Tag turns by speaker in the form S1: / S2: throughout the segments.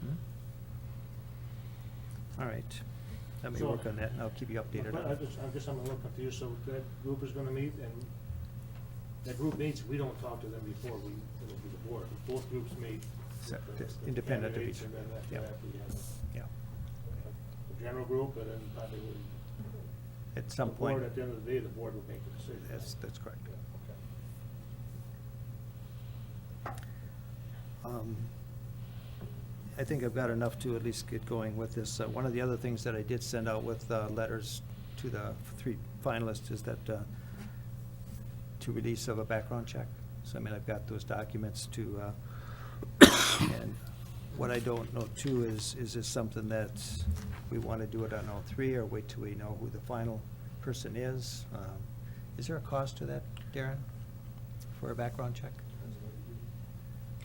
S1: Hmm? All right. Let me
S2: So-
S1: work on that, and I'll keep you updated
S2: But I
S1: on it.
S2: just, I guess I'm a little confused, so that group is gonna meet, and that group meets, we don't talk to them before we, it'll be the board, both groups meet. with
S1: So,
S2: the-
S1: just
S2: the
S1: independent of
S2: candidates,
S1: each
S2: And then
S1: other,
S2: after
S1: yeah.
S2: that, we have
S1: Yeah.
S2: the general group, and then probably we.
S1: At some
S2: the
S1: point,
S2: board, At the end of the day, the board would make the decision. right?
S1: that's, that's correct.
S2: Yeah, okay.
S1: Um, I think I've got enough to at least get going with this. Uh, One of the other things that I did send out with uh, letters to the three finalists is that uh, to release of a background check. So I mean, I've got those documents to, uh, and what I don't know too is, is this something that we want to do it on all three or wait till we know who the final person is? Um, Is there a cost to that, Darren, for a background check?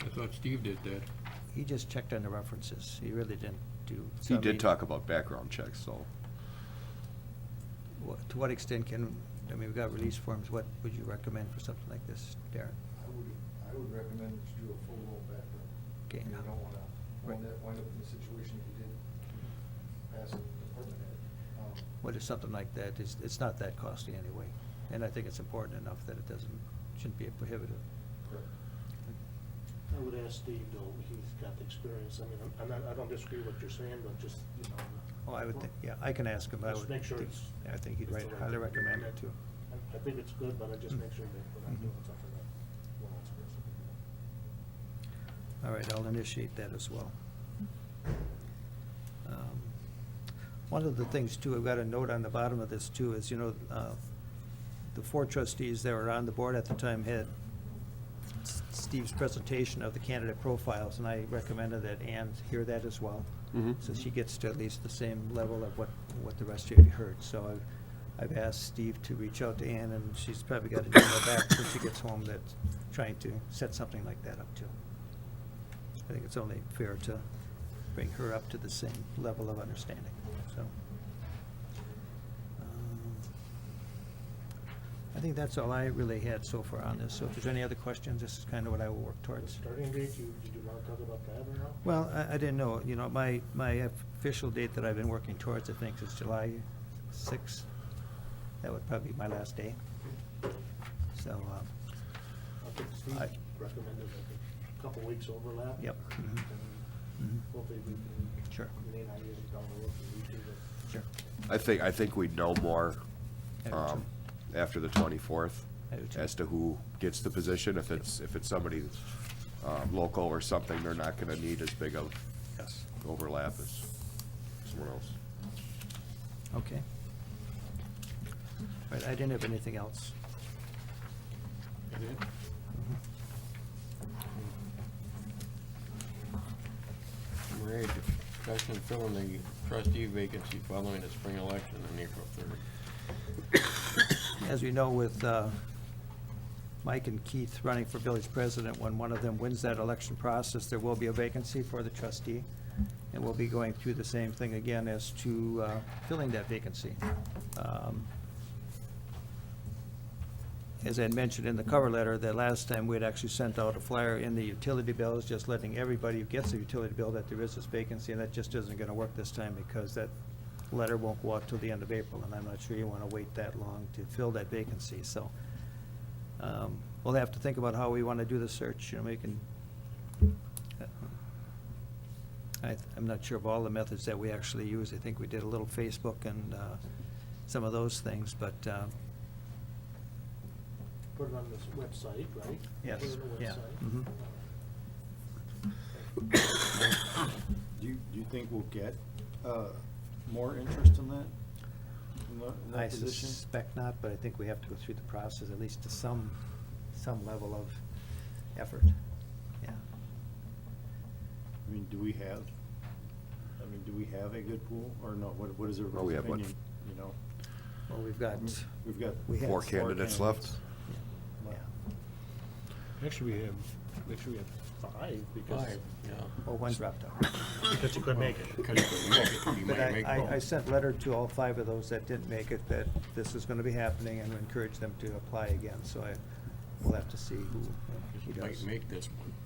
S3: I thought Steve did that.
S1: He just checked on the references. He really didn't do. so,
S4: He
S1: I mean,
S4: did talk about background checks, so.
S1: wha- To what extent can, I mean, we've got release forms. What would you recommend for something like this, Darren?
S5: I would, I would recommend that you do a full roll background.
S1: Okay.
S5: You don't wanna,
S1: Right.
S5: wind up, wind up in the situation you did pass the department head. Um,
S1: What is something like that? It's, it's not that costly anyway. And I think it's important enough that it doesn't, shouldn't be a prohibitive.
S5: correct.
S2: I would ask Steve, though, he's got the experience, I mean, I'm- I'm not, I don't disagree with what you're saying, but just, you know.
S1: Oh, I would think, yeah, I can ask him. I
S2: Let's
S1: would
S2: make sure
S1: think-
S2: it's-
S1: I think he'd
S2: it's
S1: write-
S2: the right
S1: highly
S2: thing.
S1: recommend it too.
S2: I- I think it's good, but I just make sure that we're not
S1: Mhm.
S2: doing something that we're not supposed to be doing.
S1: All right, I'll initiate that as well. Um, One of the things too, I've got a note on the bottom of this too, is, you know, uh, the four trustees that were on the board at the time had S- Steve's presentation of the candidate profiles, and I recommended that Ann hear that as well.
S4: Mhm.
S1: So she gets to at least the same level of what, what the rest of you heard. So I've, I've asked Steve to reach out to Ann, and she's probably got an email back when she gets home that, trying to set something like that up too. I think it's only fair to bring her up to the same level of understanding, so. um, I think that's all I really had so far on this, so if there's any other questions, this is kind of what I will work towards.
S2: Starting date, you, did you want to talk about that or no?
S1: Well, I, I didn't know, you know, my, my official date that I've been working towards, I think, is July sixth. That would probably be my last day. So, um,
S2: I think Steve
S1: I-
S2: recommended like a couple weeks overlap.
S1: Yep. Mhm.
S2: And Hopefully we can.
S1: Sure.
S2: Renee and I usually don't look at YouTube. but-
S1: Sure.
S4: I think, I think we'd know more
S1: I do
S4: um, after the 24th
S1: I do too.
S4: as to who gets the position. If it's, if it's somebody um, local or something, they're not going to need as big of
S1: yes,
S4: overlap as someone else.
S1: okay. All right, I didn't have anything else.
S3: Maria, discussion of filling the trustee vacancy following the spring election on April third.
S1: As we know, with uh, Mike and Keith running for village president, when one of them wins that election process, there will be a vacancy for the trustee. And we'll be going through the same thing again as to uh, filling that vacancy. Um, As I had mentioned in the cover letter, that last time we had actually sent out a flyer in the utility bills, just letting everybody who gets a utility bill that there is this vacancy, and that just isn't gonna work this time because that letter won't go out till the end of April, and I'm not sure you wanna wait that long to fill that vacancy, so. um, We'll have to think about how we wanna do the search, you know, we can. uh, I, I'm not sure of all the methods that we actually use, I think we did a little Facebook and, uh, some of those things, but, uh,
S2: Put it on this website, right?
S1: Yes,
S2: Put it on the
S1: yeah,
S2: website.
S1: mhm.
S6: Do you, do you think we'll get uh, more interest in that? in that- in that
S1: I
S6: position?
S1: suspect not, but I think we have to go through the process, at least to some, some level of effort. Yeah.
S6: I mean, do we have, I mean, do we have a good pool or no? What, what is
S4: Well, Oh, we
S6: everybody's
S4: have one.
S6: opinion, you know?
S1: Well, we've got,
S3: Mm-hmm.
S6: We've got.
S1: We have
S4: Four candidates left?
S1: yeah.
S2: Actually, we have, actually we have five
S3: Five, yeah.
S1: Well, one dropped out.
S2: Because you couldn't make it.
S1: But I, I- I sent letter to all five of those that didn't make it, that this is gonna be happening, and encourage them to apply again, so I, we'll have to see who, who
S3: Might
S1: does.
S3: make this one.